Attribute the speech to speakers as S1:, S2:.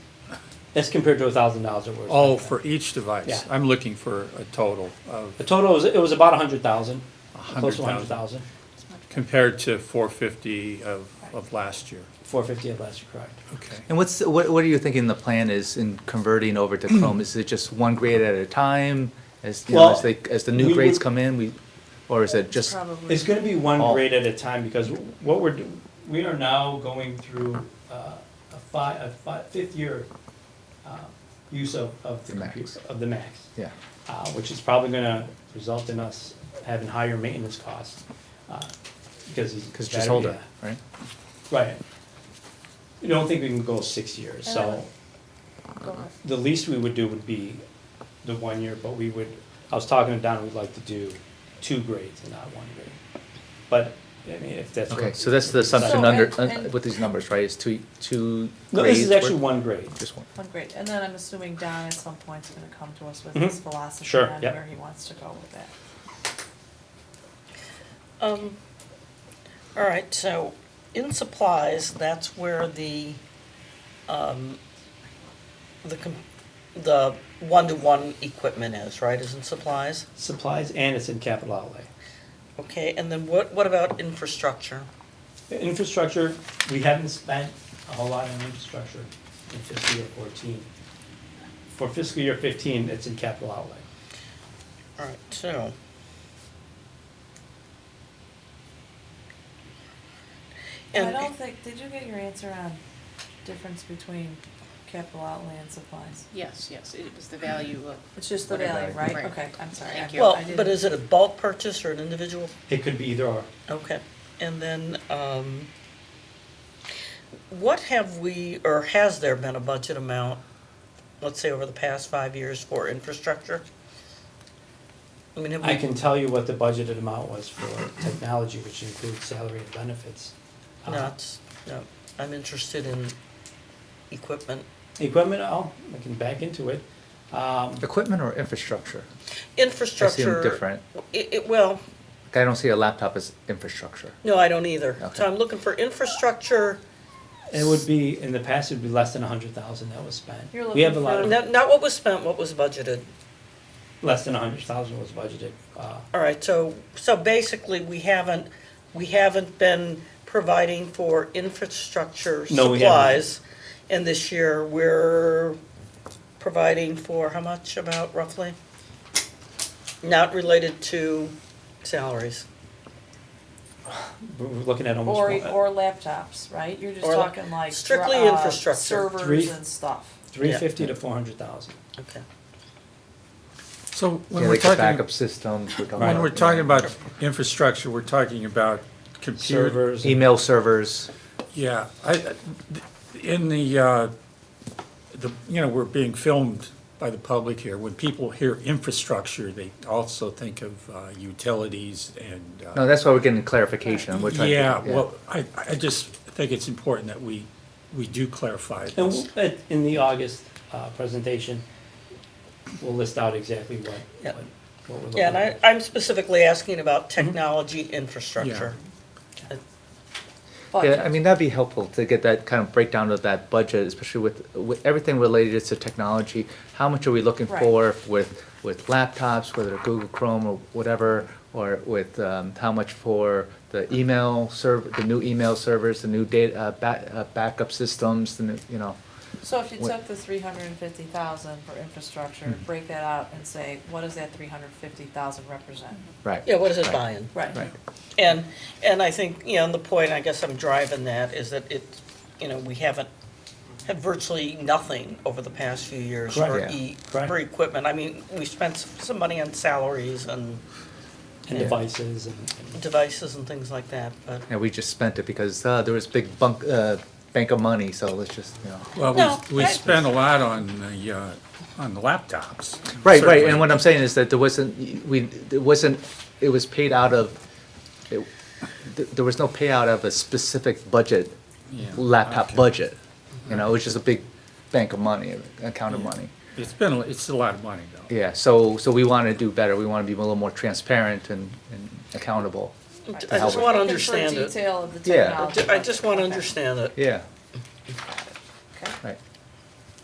S1: That's compared to a thousand dollars it was.
S2: Oh, for each
S1: Yeah.
S2: device? I'm looking for a total of
S1: The total was, it was about a hundred thousand,
S2: a
S1: close to a hundred
S2: 100,000
S1: thousand,
S2: compared to 450 of, of last year.
S1: four fifty of last year, correct.
S2: Okay.
S3: And what's, what, what are you thinking the plan is in converting over to Chrome? Is it just one grade at a time? As, you know,
S1: Well,
S3: as they, as the
S1: we
S3: new grades
S1: would-
S3: come in, we, or is it just?
S4: Probably.
S1: It's gonna be one
S3: All.
S1: grade at a time, because what we're, do- we are now going through uh, a fi, a fi, fifth year uh, use of, of the
S3: The Macs.
S1: computer, of the max.
S3: Yeah,
S1: uh, which is probably gonna result in us having higher maintenance costs, uh, because these.
S3: because just
S1: battery-
S3: older, right?
S1: yeah, Right. You don't think we can go six years, so the least we would do would be the one year, but we would, I was talking to Don, we'd like to do two grades and not one grade. But, I mean, if that's. what-
S3: Okay, so that's the
S4: So,
S3: assumption under,
S4: and-
S3: uh,
S4: and-
S3: with these numbers, right? It's two, two grades?
S1: No, this is actually
S3: worth-
S1: one grade.
S3: Just one.
S4: One grade, and then I'm assuming Don at some point's gonna come to us with
S1: Mhm.
S4: his philosophy
S1: Sure,
S4: on
S1: yep.
S4: where he wants to go with that.
S5: Um, all right, so in supplies, that's where the, um, the, com- the one-to-one equipment is, right, is in supplies?
S1: Supplies and it's in capital outlay.
S5: Okay, and then what, what about infrastructure?
S1: Infrastructure, we haven't spent a whole lot on infrastructure in fiscal year fourteen. For fiscal year fifteen, it's in capital outlay.
S5: All right,
S4: I
S5: so. And,
S4: don't think, did you get your answer on difference between capital outlay and supplies?
S6: Yes, yes, it was the value of,
S4: It's just the
S3: Whatever.
S4: value, right?
S6: Right.
S4: Okay, I'm sorry.
S6: Thank
S4: I-
S6: you.
S5: well,
S4: I
S5: but
S4: didn't-
S5: is it a bulk purchase or an individual
S1: It could be either or.
S5: Okay, and then, um, what have we, or has there been a budget amount, let's say over the past five years for infrastructure? I mean, have
S1: I
S5: we,
S1: can tell you what the budgeted amount was for technology, which includes salary and benefits.
S3: uh-huh.
S1: Um,
S5: no, it's, no, I'm interested in equipment,
S1: Equipment, oh, I can back into it. Um,
S3: Equipment or infrastructure? I see
S5: infrastructure.
S3: them different.
S5: It, it, well,
S3: Like, I don't see a laptop as infrastructure.
S5: no, I don't either,
S3: Okay.
S5: so I'm looking for infrastructure,
S1: It would be, in the past, it'd be less than a hundred thousand that was spent.
S4: You're
S1: We have a
S4: looking
S1: lot
S4: for-
S1: of,
S5: not, not what was spent, what was budgeted.
S1: less than a hundred thousand was budgeted. Uh,
S5: All right, so, so basically, we haven't, we haven't been providing for infrastructure
S1: No, we haven't.
S5: supplies. And this year, we're providing for how much about roughly? Not related to salaries.
S1: we're we're looking at almost.
S4: Or,
S1: one-
S4: or laptops, right? You're just
S5: Or la-
S4: talking like.
S5: strictly
S4: uh,
S5: infrastructure.
S1: Three-
S4: Servers and stuff.
S1: Three fifty to four hundred thousand.
S5: Okay.
S2: So when
S3: Yeah,
S2: we're
S3: like the
S2: talking,
S3: backup systems, we're talking about.
S2: when we're
S3: you know,
S2: talking about infrastructure, we're talking about computer,
S1: Servers. and-
S3: Email servers.
S2: Yeah, I, in the, uh, the, you know, we're being filmed by the public here. When people hear infrastructure, they also think of uh, utilities and. uh,
S3: No, that's why we're getting clarification. on what type of-
S2: Yeah, well, I, I just think it's important that we, we do clarify
S1: And
S2: this.
S1: we'll- at- in the August uh, presentation, we'll list out exactly what,
S5: Yeah.
S1: what what we're looking
S5: Yeah, and I,
S1: at.
S5: I'm specifically asking about technology infrastructure.
S4: But-
S3: Yeah, I mean, that'd be helpful to get that kind of breakdown of that budget, especially with, with everything related to technology. How much are we looking
S4: Right.
S3: for with, with laptops, whether Google Chrome or whatever, or with, um, how much for the email serv, the new email servers, the new data, uh, back, uh, backup systems, the new, you know.
S4: So if you
S3: What-
S4: took the three hundred and fifty thousand for infrastructure, break that out and say, what does that three hundred and fifty thousand represent?
S3: Right.
S5: Yeah, what is it
S3: Right.
S5: buying?
S4: Right.
S5: And, and I think, you know, and the point, I guess I'm driving that, is that it, you know, we haven't had virtually nothing over the past few years for
S3: Correct.
S5: e,
S1: Correct.
S5: for equipment. I mean, we spent s- some money on salaries and
S1: And devices and. and-
S5: devices and things like that, but,
S3: And we just spent it because, uh, there was big bunk, uh, bank of money, so let's just, you know.
S2: Well,
S5: No,
S2: we, we
S5: I-
S2: spend a lot on the, uh, on the laptops.
S3: Right, right,
S2: certainly.
S3: and what I'm saying is that there wasn't, we, it wasn't, it was paid out of, it- th- there was no payout of a specific budget,
S2: Yeah,
S3: laptop
S2: okay.
S3: budget. You know, it was just a big bank of money, account of
S2: Yeah.
S3: money.
S2: It's been, a- it's a lot of money, though.
S3: Yeah, so, so we want to do better, we want to be a little more transparent and, and accountable.
S5: I
S3: how
S5: just
S3: we-
S5: want
S4: Looking for
S5: to understand it.
S4: detail of the
S3: Yeah.
S4: technology.
S5: I just want to
S4: Okay.
S5: understand it.
S3: Yeah,